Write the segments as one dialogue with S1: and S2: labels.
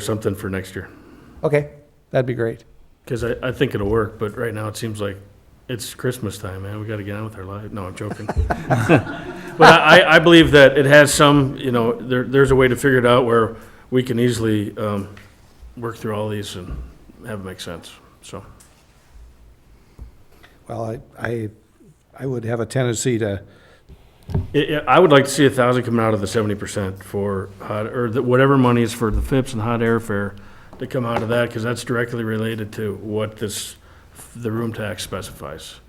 S1: something for next year.
S2: Okay, that'd be great.
S1: Because I, I think it'll work, but right now it seems like it's Christmas time, man. We got to get on with our life. No, I'm joking. But I, I believe that it has some, you know, there, there's a way to figure it out where we can easily, um, work through all these and have it make sense, so.
S2: Well, I, I, I would have a tendency to,
S1: I- I I would like to see a thousand coming out of the seventy percent for hot, or the- whatever money is for the FIPS and hot airfare to come out of that, because that's directly related to what this, the room tax specifies.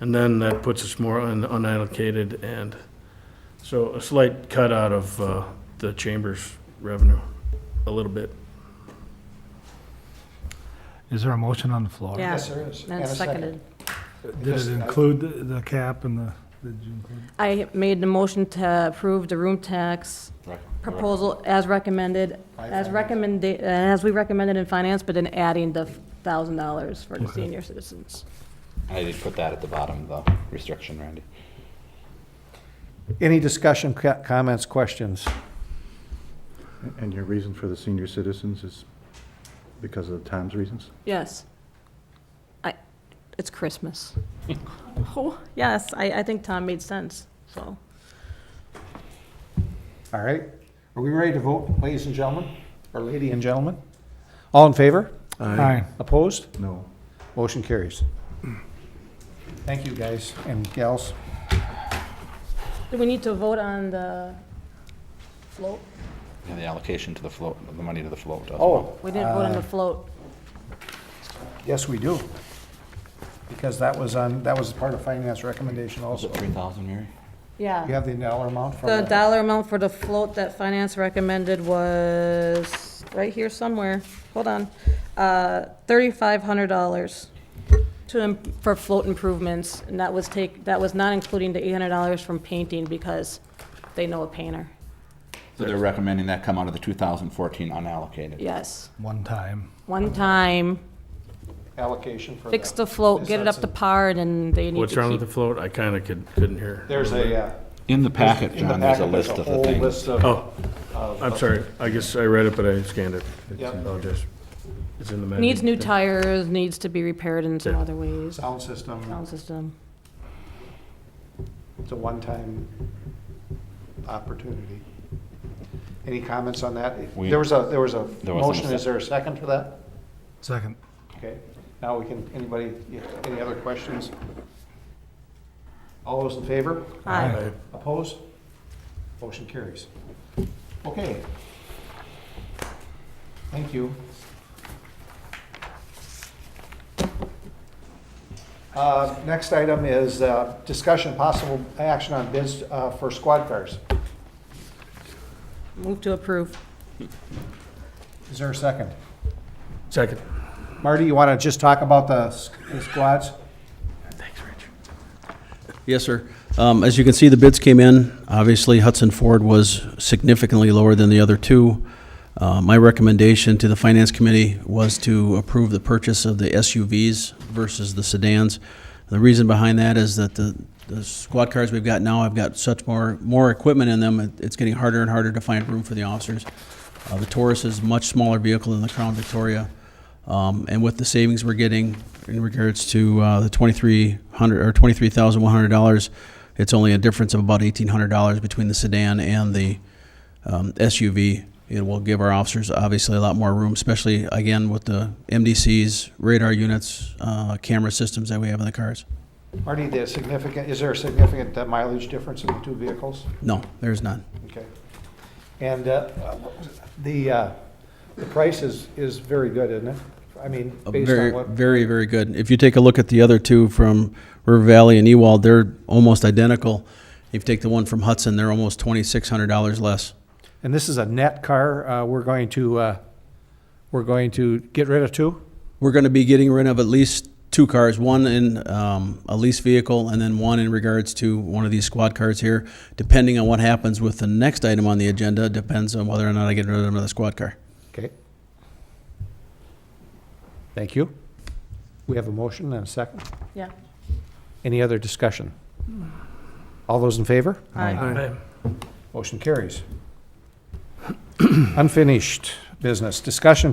S1: And then that puts us more on unallocated and, so a slight cut out of uh, the chamber's revenue, a little bit.
S3: Is there a motion on the floor?
S4: Yeah.
S5: Yes, there is.
S4: And seconded.
S3: Did it include the- the cap and the, did you include?
S4: I made the motion to approve the room tax proposal as recommended, as recommended, as we recommended in finance, but then adding the thousand dollars for the senior citizens.
S6: I did put that at the bottom, the restriction, Randy.
S2: any discussion, co- comments, questions?
S5: And your reason for the senior citizens is because of the times reasons?
S4: Yes. I, it's Christmas. Oh, yes, I, I think Tom made sense, so.
S2: All right, are we ready to vote, ladies and gentlemen, or lady and gentlemen? All in favor?
S3: Aye.
S2: Opposed?
S5: No.
S2: Motion carries. Thank you, guys and gals.
S4: Do we need to vote on the float?
S6: And the allocation to the float, the money to the float. doesn't-
S2: Oh,
S4: We didn't vote on the float.
S2: yes, we do. Because that was on, that was part of finance recommendation
S6: Was
S2: also.
S6: it three thousand, Mary?
S4: Yeah.
S2: You have the dollar amount from
S4: The
S2: that?
S4: dollar amount for the float that finance recommended was right here somewhere. Hold on. Uh, $3,500 to, im- for float improvements. And that was take, that was not including the $800 from painting because they know a painter.
S6: So they're recommending that come out of the two thousand fourteen unallocated.
S4: Yes.
S3: One time.
S4: One time,
S2: Allocation for
S4: fix
S2: that.
S4: the float, get it up to par, and then they need
S1: What's wrong with
S4: to
S1: the
S4: keep.
S1: float? I kind of could, couldn't hear.
S2: There's a, uh,
S6: In the packet,
S2: in the
S6: John, there's a
S2: packet,
S6: list of the
S2: whole
S6: things.
S2: list of-
S1: Oh, I'm sorry. I guess I read it, but I scanned it.
S2: Yep.
S1: Apologize. It's in the. menu.
S4: Needs new tires, needs to be repaired in some
S1: Yeah.
S4: other ways.
S2: Sound system,
S4: Sound system.
S2: it's a one-time opportunity. Any comments on that?
S6: We-
S2: There was a, there was a
S6: There wasn't a
S2: motion,
S6: sec-
S2: is there a second for that?
S3: Second.
S2: Okay, now we can, anybody, any other questions? All those in favor?
S4: Aye.
S2: Opposed? Motion carries. Okay. Thank you. Uh, Next item is uh, discussion possible action on bids uh, for squad cars.
S4: Move to approve.
S2: Is there a second?
S1: Second.
S2: Marty, you want to just talk about the s- the squads?
S1: Thanks, Rich.
S7: Yes, sir. Um, As you can see, the bids came in. Obviously, Hudson Ford was significantly lower than the other two. Uh, My recommendation to the Finance Committee was to approve the purchase of the SUVs versus the sedans. The reason behind that is that the the squad cars we've got now, I've got such more, more equipment in them, it- it's getting harder and harder to find room for the officers. Uh, The Taurus is a much smaller vehicle than the Crown Victoria. Um, and with the savings we're getting in regards to uh, the twenty-three hundred or twenty-three thousand one hundred dollars, it's only a difference of about eighteen hundred dollars between the sedan and the um, SUV. It will give our officers obviously a lot more room, especially again with the MDCs, radar units, uh, camera systems that we have in the cars.
S2: Marty, the significant, is there a significant uh, mileage difference in the two vehicles?
S7: No, there's none.
S2: Okay. And uh, the, uh, the price is, is very good, isn't it? I mean,
S7: Uh,
S2: based
S7: very,
S2: on what,
S7: very, very good. If you take a look at the other two from River Valley and Ewald, they're almost identical. If you take the one from Hudson, they're almost twenty-six hundred dollars less.
S2: and this is a net car, uh, we're going to, uh, we're going to get rid of two?
S7: We're going to be getting rid of at least two cars, one in um, a lease vehicle and then one in regards to one of these squad cars here. Depending on what happens with the next item on the agenda, depends on whether or not I get rid of another squad car.
S2: Okay. Thank you. We have a motion and a second.
S4: Yeah.
S2: Any other discussion? All those in favor?
S4: Aye.
S2: Motion carries. Unfinished business. Discussion